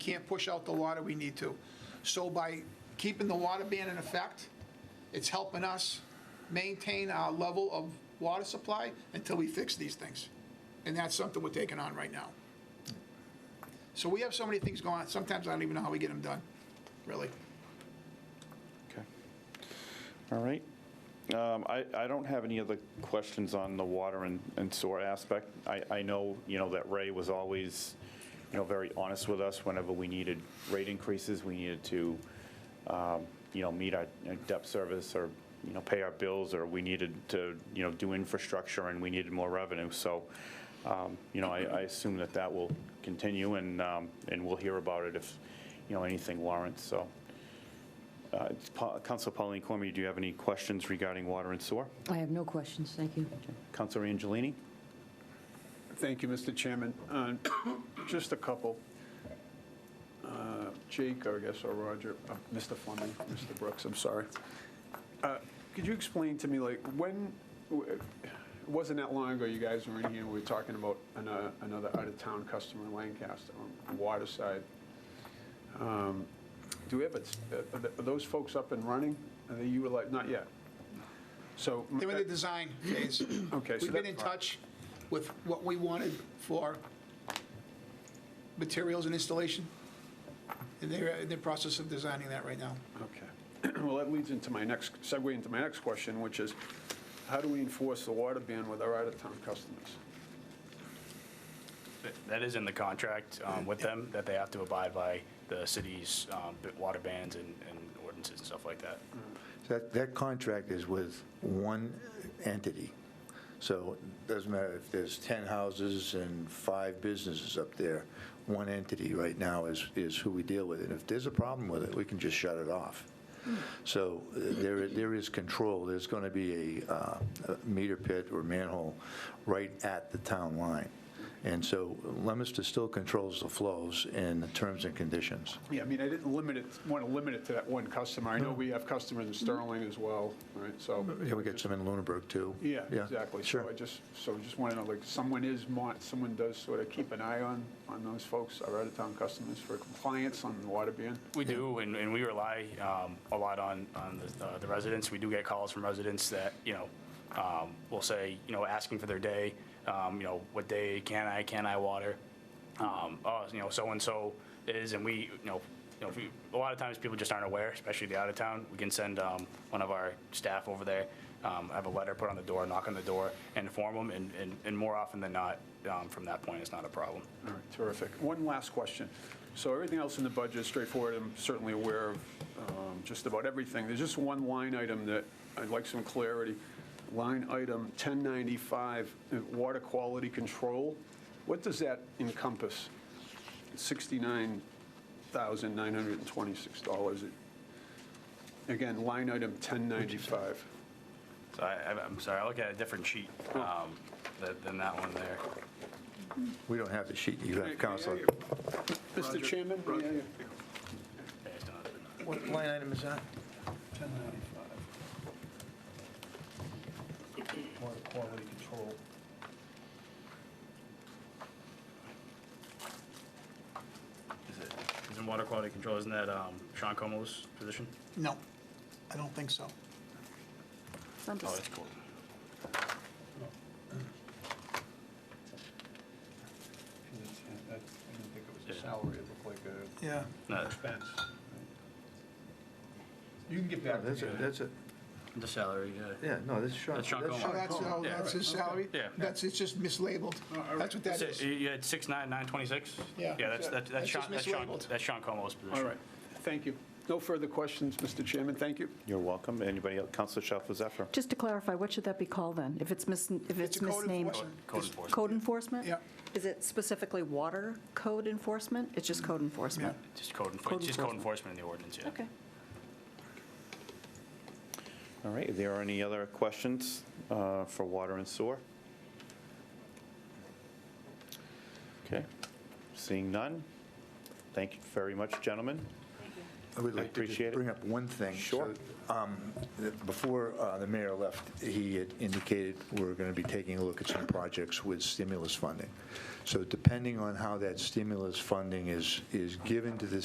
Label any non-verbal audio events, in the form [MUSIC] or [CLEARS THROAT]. can't push out the water we need to. So by keeping the water ban in effect, it's helping us maintain our level of water supply until we fix these things. And that's something we're taking on right now. So we have so many things going on, sometimes I don't even know how we get them done, really. Okay. All right. Um, I I don't have any other questions on the water and and sewer aspect. I I know, you know, that Ray was always, you know, very honest with us whenever we needed rate increases, we needed to, um, you know, meet our our debt service or, you know, pay our bills, or we needed to, you know, do infrastructure and we needed more revenue. So, um, you know, I I assume that that will continue and um, and we'll hear about it if, you know, anything warrants, so. Uh, it's Pa- Council Pauline Cormier, do you have any questions regarding water and sewer? I have no questions, thank you. Council Angelini? Thank you, Mr. Chairman. Uh, Just a couple. Uh, Jake, I guess, or Roger, uh, Mr. Fleming, Mr. Brooks, I'm sorry. Uh, Could you explain to me, like, when, w- it wasn't that long ago, you guys were in here, we were talking about an- uh, another out-of-town customer in Lancaster, on the water side. Um, Do we have, a- uh, are th- are those folks up and running? Are they, you were like, not yet? So. uh, They were in the design phase. [CLEARS THROAT] Okay, so We've been that- in touch with what we wanted for materials and installation, and they're in the process of designing that right now. Okay. [CLEARS THROAT] Well, that leads into my next, segue into my next question, which is, how do we enforce the water ban with our out-of-town customers? That- That is in the contract um, with them, that they have to abide by the city's um, b- water bans and and ordinances and stuff like that. So That, that contract is with one entity. So it doesn't matter if there's 10 houses and five businesses up there, one entity right now is, is who we deal with. And if there's a problem with it, we can just shut it off. So uh, there, there is control. There's going to be a uh, a meter pit or manhole right at the town line. And so Leominster still controls the flows and the terms and conditions. Yeah, I mean, I didn't limit it, want to limit it to that one customer. I know we have customers in Sterling as well, right, so. Yeah, we get some in Lunenburg, too. Yeah, exactly. Sure. So I just, so I just want to know, like, someone is, mon- someone does sort of keep an eye on, on those folks, our out-of-town customers for compliance on the water ban? We do, and and we rely um, a lot on on the- uh, the residents. We do get calls from residents that, you know, um, will say, you know, asking for their day, um, you know, what day can I, can I water? Um, Oh, you know, so-and-so is, and we, you know, you know, if we- a lot of times people just aren't aware, especially the out-of-town. We can send um, one of our staff over there, um, have a letter put on the door, knock on the door, and inform them, and- and and more often than not, um, from that point, it's not a problem. All right, terrific. One last question. So everything else in the budget is straightforward. I'm certainly aware of um, just about everything. There's just one line item that I'd like some clarity. Line item 1095, uh, water quality control. What does that encompass? $69,926. Again, line item 1095. So I, I- I'm sorry, I look at a different sheet um, tha- than that one there. We don't have the sheet you have, Counselor. Mr. Chairman? may I- Yeah, it's not- What line item is that? 1095. Water quality control. Is it, isn't water quality control, isn't that um, Sean Como's position? No, I don't think so. Oh, that's cool. I didn't think it was Yeah. a salary, it looked like a Yeah. No, expense. You can get back to That's a, me. that's a, The salary, uh, yeah. yeah, no, this is Sean. That's Sean Coleman. Oh, that's, oh, Yeah. that's his salary? Yeah. That's, it's just mislabeled. That's what that So is. You you had six nine nine twenty six. Yeah. Yeah, that's, that's that's That's Sean, just that's Sean, mislabeled. that's Sean Como's position. All right, thank you. No further questions, Mr. Chairman, thank you. You're welcome. Anybody else? Council Shalfo Zephyr? Just to clarify, what should that be called then, if it's mis, if It's it's a code misnamed? enforcement. Code enforcement. Code enforcement? Yeah. Is it specifically water code enforcement? It's just code enforcement? Just code enfor- Code just code enforcement. enforcement in the ordinance, yeah. Okay. All right, are there any other questions uh, for water and sewer? Okay, seeing none. Thank you very much, gentlemen. I would I like to appreciate it. just bring up one thing. Sure. So, um, th- Before uh, the mayor left, he had indicated we're going to be taking a look at some projects with stimulus funding. So depending on how that stimulus funding is, is given to the